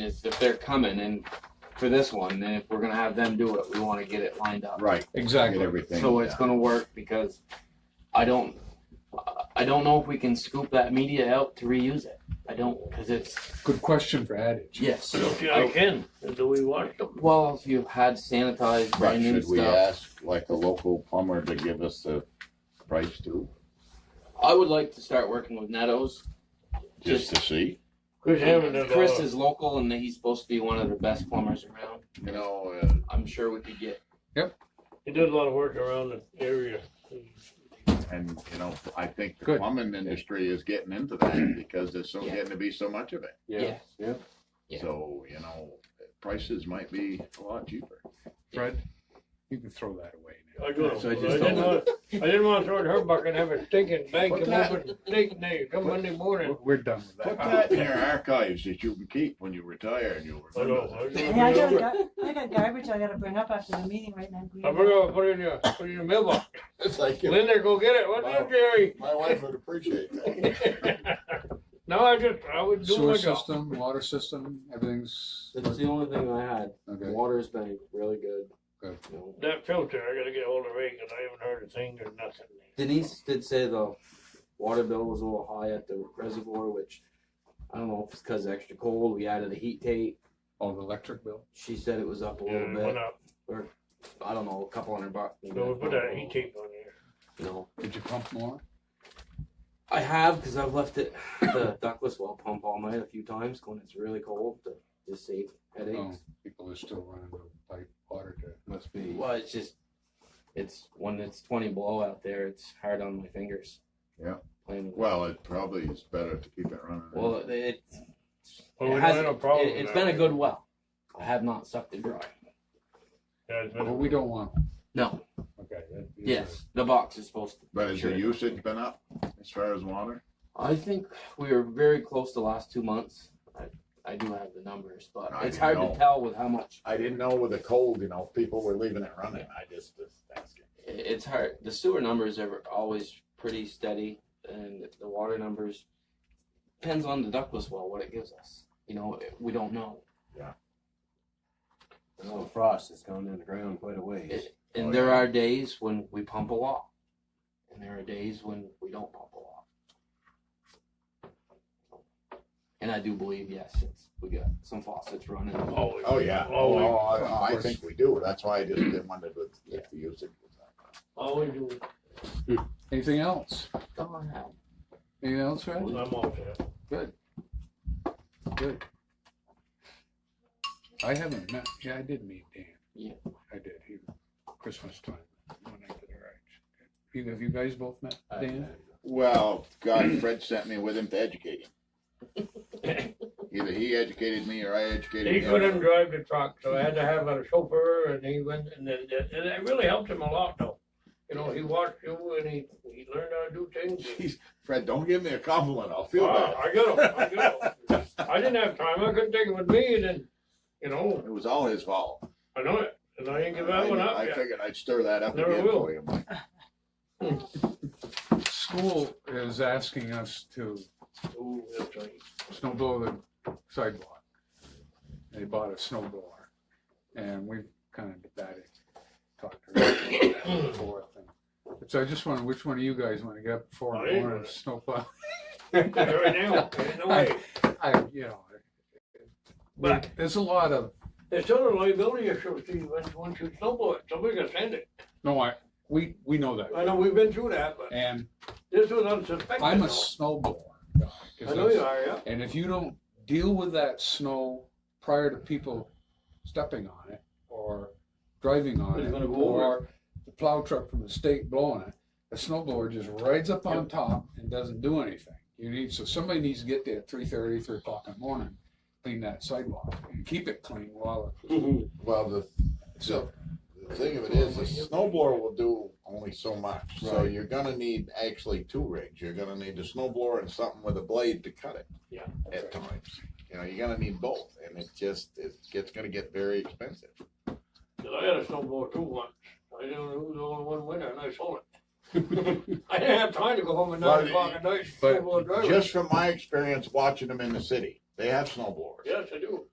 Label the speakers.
Speaker 1: is if they're coming and for this one, then if we're gonna have them do it, we wanna get it lined up.
Speaker 2: Right, get
Speaker 3: Exactly.
Speaker 2: everything.
Speaker 1: So it's
Speaker 2: down.
Speaker 1: gonna work because I don't, I- I don't know if we can scoop that media out to reuse it. I don't, cause it's,
Speaker 3: Good question for adage.
Speaker 1: yes.
Speaker 4: Yeah, I can, do we want them?
Speaker 1: Well, if you've had sanitized
Speaker 2: But
Speaker 1: brand new
Speaker 2: should we
Speaker 1: stuff,
Speaker 2: ask like a local plumber to give us the price too,
Speaker 1: I would like to start working with Netto's.
Speaker 2: just to see?
Speaker 4: Chris Hammond does
Speaker 1: Chris
Speaker 4: all,
Speaker 1: is local and he's supposed to be one of the best plumbers around.
Speaker 2: You know, uh,
Speaker 1: I'm sure we could get,
Speaker 4: he does a lot of work around the area.
Speaker 2: and you know, I think the
Speaker 3: Good.
Speaker 2: plumbing industry is getting into that because there's so getting to be so much of it.
Speaker 1: yeah. Yeah.
Speaker 2: So, you know, prices might be a lot cheaper.
Speaker 3: Fred, you can throw that away now.
Speaker 4: I go,
Speaker 5: So
Speaker 4: I
Speaker 5: I just
Speaker 4: didn't
Speaker 5: don't-
Speaker 4: want, I didn't want to throw it in her bucket and have a stinking bank
Speaker 2: What's
Speaker 4: and
Speaker 2: that?
Speaker 4: open stinking day, come Monday morning.
Speaker 3: We're- We're done with
Speaker 2: Put
Speaker 3: that.
Speaker 2: that in your archives that you can keep when you retire and you'll
Speaker 4: I
Speaker 2: remember
Speaker 4: know.
Speaker 2: that.
Speaker 6: Yeah, I
Speaker 4: I
Speaker 6: got, a
Speaker 4: forgot,
Speaker 6: gar- I got garbage I gotta bring up after the meeting right now.
Speaker 4: I forgot to put it in your, put it in your mailbox.
Speaker 5: It's like, you-
Speaker 4: Linda, go get it, what's
Speaker 5: Wow.
Speaker 4: up, Jerry?
Speaker 5: my wife would appreciate that.
Speaker 4: No, I just, I would do my
Speaker 3: Uh, Sewer
Speaker 4: job.
Speaker 3: system, water system, everything's,
Speaker 1: That's the only thing I had.
Speaker 3: okay,
Speaker 1: Water's been really good.
Speaker 3: Good.
Speaker 1: You know.
Speaker 4: That filter, I gotta get hold of Ray, cause I haven't heard a thing or nothing.
Speaker 1: Denise did say the water bill was a little high at the reservoir, which I don't know if it's because extra cold. We added a heat tape.
Speaker 3: oh, the electric bill.
Speaker 1: She said it was up a
Speaker 4: Yeah,
Speaker 1: little
Speaker 4: it went
Speaker 1: bit.
Speaker 4: up,
Speaker 1: I don't know, a couple hundred bucks.
Speaker 4: so we put that heat tape on there.
Speaker 1: No,
Speaker 3: Did you pump more?
Speaker 1: I have because I've left it the ductless well pump all night a few times when it's really cold to just save headaches.
Speaker 3: Oh, people are still running the pipe water to,
Speaker 5: Must be.
Speaker 1: Well, it's just it's when it's twenty below out there, it's hard on my fingers.
Speaker 2: Yeah.
Speaker 1: Playing with it.
Speaker 2: Well, it probably is better to keep it running.
Speaker 1: Well, it, it, it
Speaker 4: Well, we don't
Speaker 1: has,
Speaker 4: have no problem
Speaker 1: it, has
Speaker 4: with that.
Speaker 1: been a good well. I have not sucked it dry.
Speaker 4: Yeah, it's been
Speaker 3: but
Speaker 4: a
Speaker 3: we don't want,
Speaker 1: No.
Speaker 3: okay. that- these
Speaker 1: Yes, the box is supposed to.
Speaker 2: But has your
Speaker 1: Sure.
Speaker 2: usage been up as far as water?
Speaker 1: I think we were very close the last two months. I, I do have the numbers, but
Speaker 2: I
Speaker 1: it's
Speaker 2: didn't
Speaker 1: hard
Speaker 2: know.
Speaker 1: to tell with how much.
Speaker 2: I didn't know with the cold, you know, people were leaving it running. I just was asking.
Speaker 1: i- It's hard. The sewer numbers are always pretty steady, and the water numbers depends on the ductless well what it gives us. You know, it- we don't know.
Speaker 5: The little frost has gone in the ground quite a ways.
Speaker 1: It- And
Speaker 2: Oh,
Speaker 1: there
Speaker 2: yeah.
Speaker 1: are days when we pump a lot, and there are days when we don't pump a lot. And I do believe, yes, it's, we got some faucets running.
Speaker 4: Always.
Speaker 2: Oh, yeah.
Speaker 4: Always.
Speaker 2: Oh, I, I think we do. That's why I just didn't wonder if- if the usage was up.
Speaker 4: Always do.
Speaker 3: Anything else?
Speaker 1: Come on now.
Speaker 3: Anything else, Fred?
Speaker 4: I'm off that.
Speaker 3: Good. Good. I haven't met, yeah, I did meet Dan.
Speaker 1: Yeah.
Speaker 3: I did, he, Christmas time, when I did the rides. You, have you guys both met Dan?
Speaker 2: Well, God, Fred sent me with him to educate him. Either he educated me or I educated
Speaker 4: He
Speaker 2: him.
Speaker 4: couldn't drive the truck, so I had to have a chauffeur, and he went, and it, it- and it really helped him a lot, though. You know, he watched you, and he, he learned how to do things.
Speaker 2: Jeez, Fred, don't give me a compliment. I'll feel bad.
Speaker 4: Wow, I got him, I got him. I didn't have time, I couldn't take him with me, and then, you know,
Speaker 2: It was all his fault.
Speaker 4: I know it, and I didn't give that one
Speaker 2: I
Speaker 4: up
Speaker 2: I
Speaker 4: yet.
Speaker 2: figured I'd stir that up
Speaker 4: Never
Speaker 2: again
Speaker 4: will.
Speaker 2: for you. Mike.
Speaker 3: School is asking us to
Speaker 4: Ooh, that's right.
Speaker 3: snow blow the sidewalk. They bought a snow blower, and we've kind of debated, talked around back and forth. and- So I just wondered, which one of you guys want to get up before
Speaker 4: Oh,
Speaker 3: I
Speaker 4: yeah.
Speaker 3: want to snowplow?
Speaker 4: Right now, there's no way.
Speaker 3: I, you know.
Speaker 4: But-
Speaker 3: There's a lot of,
Speaker 4: There's still a liability issue, Steve, once, once you snowball it, somebody can send it.
Speaker 3: no, I, we, we know that.
Speaker 4: I know, we've been through that, but
Speaker 3: And
Speaker 4: this was unsuspected.
Speaker 3: I'm a
Speaker 4: though.
Speaker 3: snowblower. guy, 'cause
Speaker 4: I know you
Speaker 3: that's-
Speaker 4: are, yeah.
Speaker 3: And if you don't deal with that snow prior to people stepping on it or driving on
Speaker 4: It's
Speaker 3: it
Speaker 4: gonna go
Speaker 3: or the plow truck from the state blowing it, the snow blower just rides up on top and doesn't do anything. You need, so somebody needs to get there at three thirty, three o'clock in the morning, clean that sidewalk and keep it clean while,
Speaker 2: Well, the,
Speaker 3: so.
Speaker 2: the thing of it is, the snowblower will do only so much. So
Speaker 3: Right.
Speaker 2: you're gonna need actually two rigs. You're gonna need a snowblower and something with a blade to cut it.
Speaker 4: Yeah.
Speaker 2: At times, you know, you're gonna need both, and it just it gets gonna get very expensive.
Speaker 4: Cause I had a snowblower too once. I didn't know who the only one winner and I sold it. I didn't have time to go home at
Speaker 2: Well,
Speaker 4: nine o'clock at night.
Speaker 3: but
Speaker 4: snowblower driver.
Speaker 2: Just from my experience watching them in the city, they have snowblowers.
Speaker 4: Yes, I do.